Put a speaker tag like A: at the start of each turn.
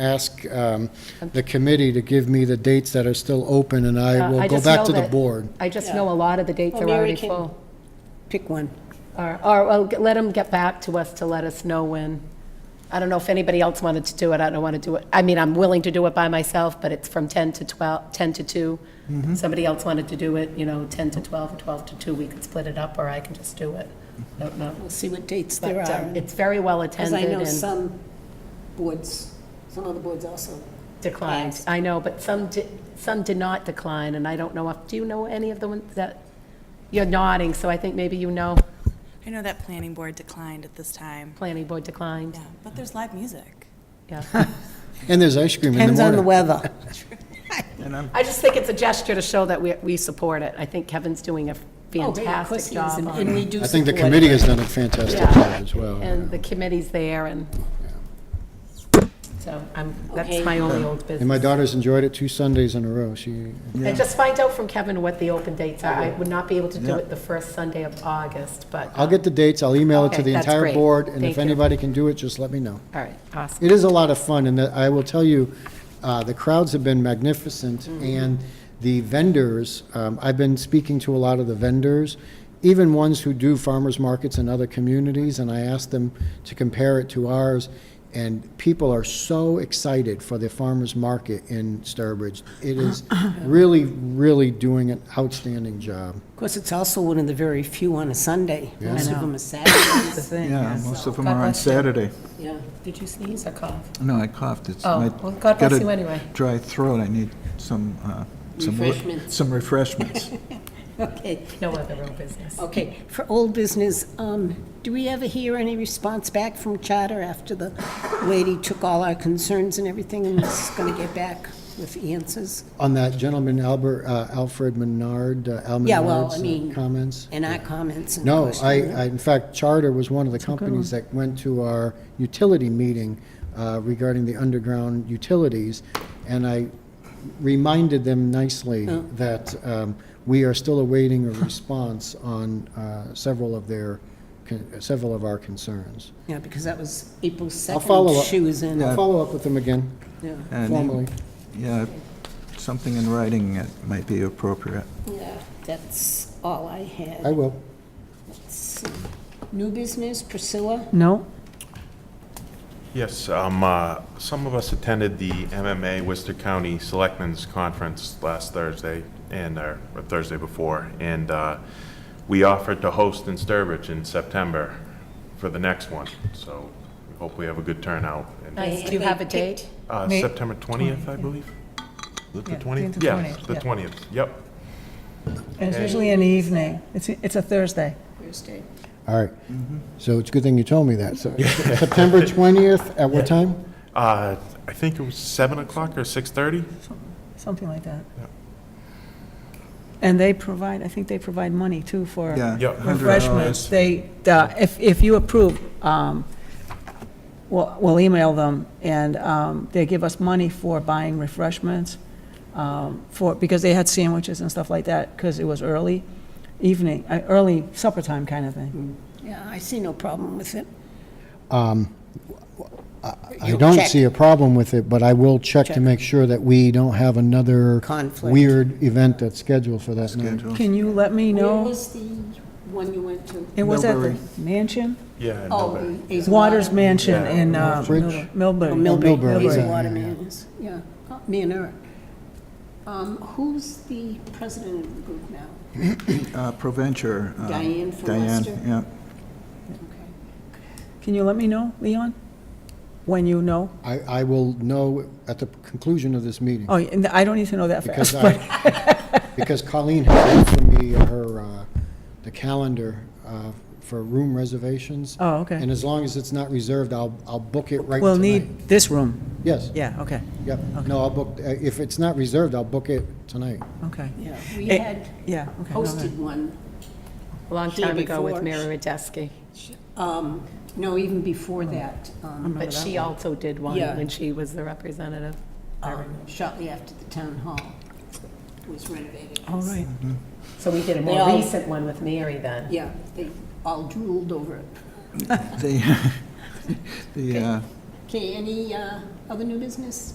A: ask um, the committee to give me the dates that are still open, and
B: Uh,
A: I will go back to the board.
B: I just know a lot of the dates
C: Well,
B: are
C: Mary
B: already
C: can-
B: full.
C: Pick one.
B: Or, or, well, g- let them get back to us to let us know when. I don't know if anybody else wanted to do it, I don't want to do it, I mean, I'm willing to do it by myself, but it's from 10 to 12, 10 to 2.
A: Mm-hmm.
B: Somebody else wanted to do it, you know, 10 to 12, or 12 to 2, we could split it up, or I can just do it. I don't know.
C: We'll see what dates there
B: But
C: are.
B: um, it's very well
C: Because
B: attended
C: I
B: and.
C: know some boards, some other boards also.
B: Declined,
C: Asked.
B: I know, but some, di- some did not decline, and I don't know, if do you know any of the ones that, you're nodding, so I think maybe you know,
D: I know that planning board declined at this time.
B: planning board declined,
D: Yeah, but there's live music.
B: yeah.
A: And there's ice cream in
C: Depends on
A: the
C: the
A: morning.
C: weather.
B: I just think it's a gesture to show that we, we support it, I think Kevin's doing a fantastic job on
C: And
B: it.
C: we do
A: I think the
C: support it.
A: committee has done a fantastic
B: Yeah.
A: job as well.
B: And the committee's there, and, so I'm, that's
C: Okay.
B: my only old business.
A: And my daughter's enjoyed it two Sundays in a row. She,
B: And just find out from Kevin what the open dates are, I would not be able to do it the first Sunday of August, but,
A: I'll get the dates, I'll email it to
B: Okay,
A: the
B: that's
A: entire
B: great.
A: board, and
B: Thank
A: if
B: you.
A: anybody can do it, just let me know.
B: all right, awesome.
A: It is a lot of fun, and I will tell you, uh, the crowds have been magnificent,
C: Mm-hmm.
A: and the vendors, um, I've been speaking to a lot of the vendors, even ones who do farmers markets in other communities, and I asked them to compare it to ours, and people are so excited for the farmers market in Sturbridge. It is really, really doing an outstanding job.
C: Of course, it's also one of the very few on a Sunday. Most of them are
B: The
C: Saturdays.
B: thing,
E: Yeah,
B: yes. Oh,
E: most of them
B: God
E: are on
B: bless you.
E: Saturday.
C: Yeah.
B: Did you sneeze or cough?
E: No, I coughed. It's
B: Oh,
E: my-
B: well, God
E: got
B: bless
E: a
B: you anyway.
E: Dry throat. I need some, uh, some re-
C: Refreshments.
E: Some refreshments.
C: Okay,
B: No other real business.
C: okay. For old business, um, do we ever hear any response back from Charter after the lady took all our concerns and everything and was going to get back with answers?
A: On that gentleman, Albert, uh, Alfred Menard, uh, Al
C: Yeah, well,
A: Menard's
C: I
A: uh,
C: mean-
A: comments?
C: And our comments and
A: No,
C: questions?
A: I, I, in fact, Charter was one of the companies that went to our utility meeting uh, regarding the underground utilities, and I reminded them nicely that um, we are still awaiting a response on uh, several of their, con- several of our concerns.
C: Yeah, because that was April 2nd.
A: follow up.
C: She was in.
A: I'll follow up with them again
C: Yeah.
E: And
A: formally.
E: Yeah, something in writing that might be appropriate.
C: Yeah, that's all I
A: I
C: had.
A: will.
C: Let's see. New business, Priscilla?
F: No,
G: Yes, um, uh, some of us attended the MMA Worcester County Selectmen's Conference last Thursday and, uh, or Thursday before, and uh, we offered to host in Sturbridge in September for the next one, so we hope we have a good turnout. And,
B: Nice. Do you have a date?
G: uh,
F: Uh, May-
G: September 20th, I believe? Is it
F: Yeah,
G: the
F: I think
G: 20th?
F: the
G: Yeah,
F: 20th,
G: the
F: yeah.
G: 20th, yep.
F: and it's usually in the evening. It's, it's a Thursday.
C: Thursday.
A: All right. So it's a good thing you told me that. So September 20th, at what time?
G: Uh, I think it was 7 o'clock or 6:30?
F: Something like that. And they provide, I think they provide money too for
E: Yeah. Oh,
G: Yeah.
E: $100.
F: refreshments. They, uh, if, if you approve, um, we'll, we'll email them and, um, they give us money for buying refreshments. Um, for, because they had sandwiches and stuff like that, because it was early evening, uh, early supper time kind of
E: Mm-hmm.
F: thing.
C: Yeah, I see no problem with it.
A: I
C: You'll
A: don't
C: check.
A: see a problem with it, but I will check to
C: Check.
A: make sure that we don't have another
C: Conflict.
A: weird event that's scheduled for that night.
E: Schedule.
F: Can you let me
C: Where
F: know?
C: Oh, was the one you went to?
F: It was at the
E: Millbury.
F: mansion?
G: Yeah. in
C: Oh,
G: Millbury.
C: the Hazel
F: Waters
C: Water-
F: Mansion in uh,
A: Bridge.
F: Milbury. Milbury.
C: Oh,
A: Millbury,
C: Millbury, Hazel
A: yeah.
C: Water Mansions, yeah, Oh, me and Eric. Um, Who's the president of the group now?
E: Uh, Proventure. uh,
C: Diane from Leicester?
E: Diane, yeah.
C: Okay.
F: Can you let me know, Leon? When you know?
A: I, I will know at the conclusion of this meeting,
F: Oh, and I don't need to know that
A: because
F: fast, but,
A: I, because Colleen has sent for me her, uh, the calendar uh, for room reservations.
F: oh,
A: And
F: okay.
A: as long as it's not reserved, I'll, I'll book it right tonight.
F: We'll need this room.
A: Yes,
F: Yeah, okay,
A: yep. No, I'll book, uh, if it's not reserved, I'll book it tonight.
F: okay.
C: Yeah, we
F: Eh,
C: had
F: Yeah, okay. all right.
C: hosted one,
B: A long
C: Here
B: time ago with
C: before.
B: Mary Radesky,
C: um, no, even before that, um,
B: but she also did one
C: Yeah.
B: when she was the representative.
C: um, shortly after the town hall was renovated.
F: All right.
B: So we did a
C: They
B: more
C: all-
B: recent one with Mary then.
C: Yeah, they all drooled over it.
E: The, the, uh,
C: Okay, any uh, Other new business?